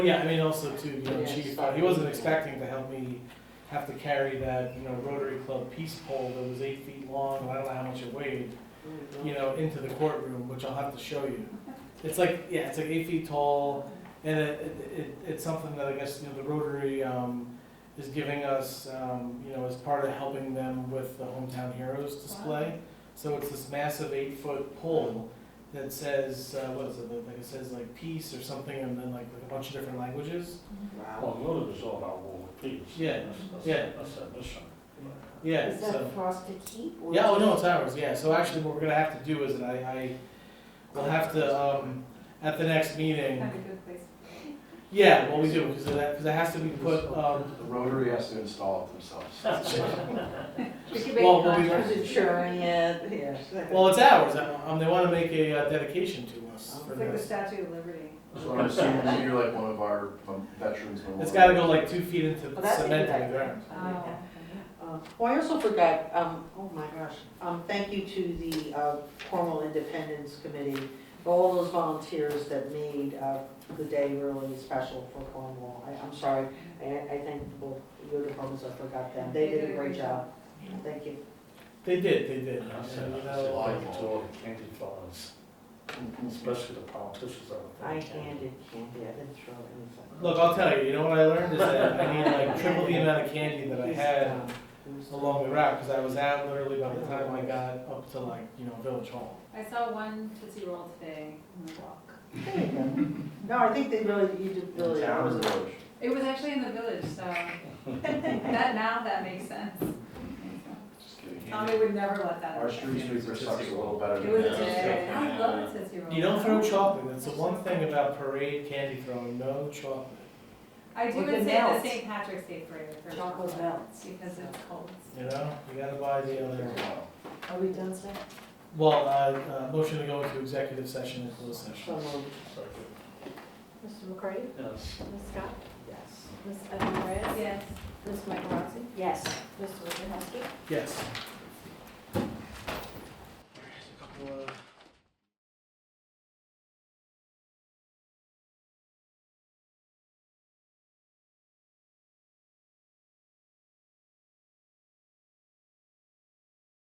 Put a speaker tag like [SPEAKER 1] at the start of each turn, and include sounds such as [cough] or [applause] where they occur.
[SPEAKER 1] Yeah, I mean, also too, you know,
[SPEAKER 2] Yeah,
[SPEAKER 1] chief,
[SPEAKER 2] just
[SPEAKER 1] uh, he
[SPEAKER 2] like-
[SPEAKER 1] wasn't expecting to help me have to carry that, you know, Rotary Club peace pole that was eight feet long, and I don't know how much it weighed, you know, into the courtroom, which I'll have to show you. It's like, yeah, it's like eight feet tall, and it, it, it, it's something that I guess, you know, the Rotary, um, is giving us, um, you know, as part of helping them with the Hometown Heroes display. So it's this massive eight-foot pole that says, uh, what is it, like it says like peace or something, and then like a bunch of different languages.
[SPEAKER 2] Wow.
[SPEAKER 3] Well, Europe is all about war and peace.
[SPEAKER 1] Yeah,
[SPEAKER 3] That's- that's-
[SPEAKER 1] yeah.
[SPEAKER 3] That's their mission.
[SPEAKER 1] Yeah,
[SPEAKER 2] Is
[SPEAKER 1] so,
[SPEAKER 2] that for us to keep? or-
[SPEAKER 1] yeah, oh no, it's ours, yeah, so actually what we're gonna have to do is that I, I will have to, um, at the next meeting,
[SPEAKER 4] Have a good place.
[SPEAKER 1] yeah, well, we do, because that, because it has to be put, um,
[SPEAKER 5] The Rotary has to install it themselves.
[SPEAKER 4] We could make
[SPEAKER 1] well,
[SPEAKER 4] a
[SPEAKER 1] we'll be-
[SPEAKER 4] contract.
[SPEAKER 2] Is it showing it, yes.
[SPEAKER 1] [laughs] well, it's ours, um, they wanna make a uh, dedication to us for
[SPEAKER 4] It's like the
[SPEAKER 1] this.
[SPEAKER 4] Statue of Liberty.
[SPEAKER 5] So I'm assuming that you're like one of our um, veterans. memorial.
[SPEAKER 1] It's gotta go like two feet into
[SPEAKER 2] Well,
[SPEAKER 1] the
[SPEAKER 2] that's a good
[SPEAKER 1] cement in the
[SPEAKER 2] idea.
[SPEAKER 1] ground.
[SPEAKER 2] Uh, Well, I also forgot, um, oh my gosh, um, thank you to the, uh, Cornwall Independence Committee, for all those volunteers that made, uh, the day really special for Cornwall. I, I'm sorry, I, I thank both your departments, I forgot them, they did a great job, thank you.
[SPEAKER 1] They did, they did,
[SPEAKER 3] And I
[SPEAKER 1] you
[SPEAKER 3] said,
[SPEAKER 1] know,
[SPEAKER 3] I said, I to all the candy farmers, especially the politicians that are.
[SPEAKER 2] I handed candy, I didn't throw anything.
[SPEAKER 1] Look, I'll tell you, you know what I learned is that I need like triple the amount of candy that I had
[SPEAKER 2] um,
[SPEAKER 1] along the route, because I was out literally by the time I got up to like, you know, Village Hall.
[SPEAKER 4] I saw one Tootsie Roll today on the walk.
[SPEAKER 2] There you go. No, I think they really, you did
[SPEAKER 5] In
[SPEAKER 2] really.
[SPEAKER 5] town or village?
[SPEAKER 4] It was actually in the
[SPEAKER 2] [laughs]
[SPEAKER 4] village, so that, now that makes sense.
[SPEAKER 5] Just kidding.
[SPEAKER 4] Tommy would never let that
[SPEAKER 5] Our
[SPEAKER 4] happen.
[SPEAKER 5] street sweeper sucks a little better
[SPEAKER 4] It
[SPEAKER 5] than
[SPEAKER 4] was
[SPEAKER 5] that.
[SPEAKER 4] a, I love a Tootsie Roll.
[SPEAKER 1] You don't throw chocolate, that's the one thing about parade candy throwing, no chocolate.
[SPEAKER 4] I do
[SPEAKER 2] Well, they
[SPEAKER 4] would say the
[SPEAKER 2] melt.
[SPEAKER 4] St. Patrick's Day parade for
[SPEAKER 2] Chocolate
[SPEAKER 4] chocolate
[SPEAKER 2] melts.
[SPEAKER 4] because it's cold.
[SPEAKER 1] You know, you gotta buy the other.
[SPEAKER 2] Are we done, sir?
[SPEAKER 1] Well, uh, uh, motion to go into executive session and closed session.
[SPEAKER 2] So moved.
[SPEAKER 6] Mr. McCarty?
[SPEAKER 3] Yes.
[SPEAKER 6] Ms. Scott?
[SPEAKER 2] Yes.
[SPEAKER 6] Ms. Edelman Reyes?
[SPEAKER 4] Yes.
[SPEAKER 6] Ms. Mike Rossi?
[SPEAKER 2] Yes.
[SPEAKER 6] Mr. Wojciechowski?
[SPEAKER 1] Yes.
[SPEAKER 2] There's a couple of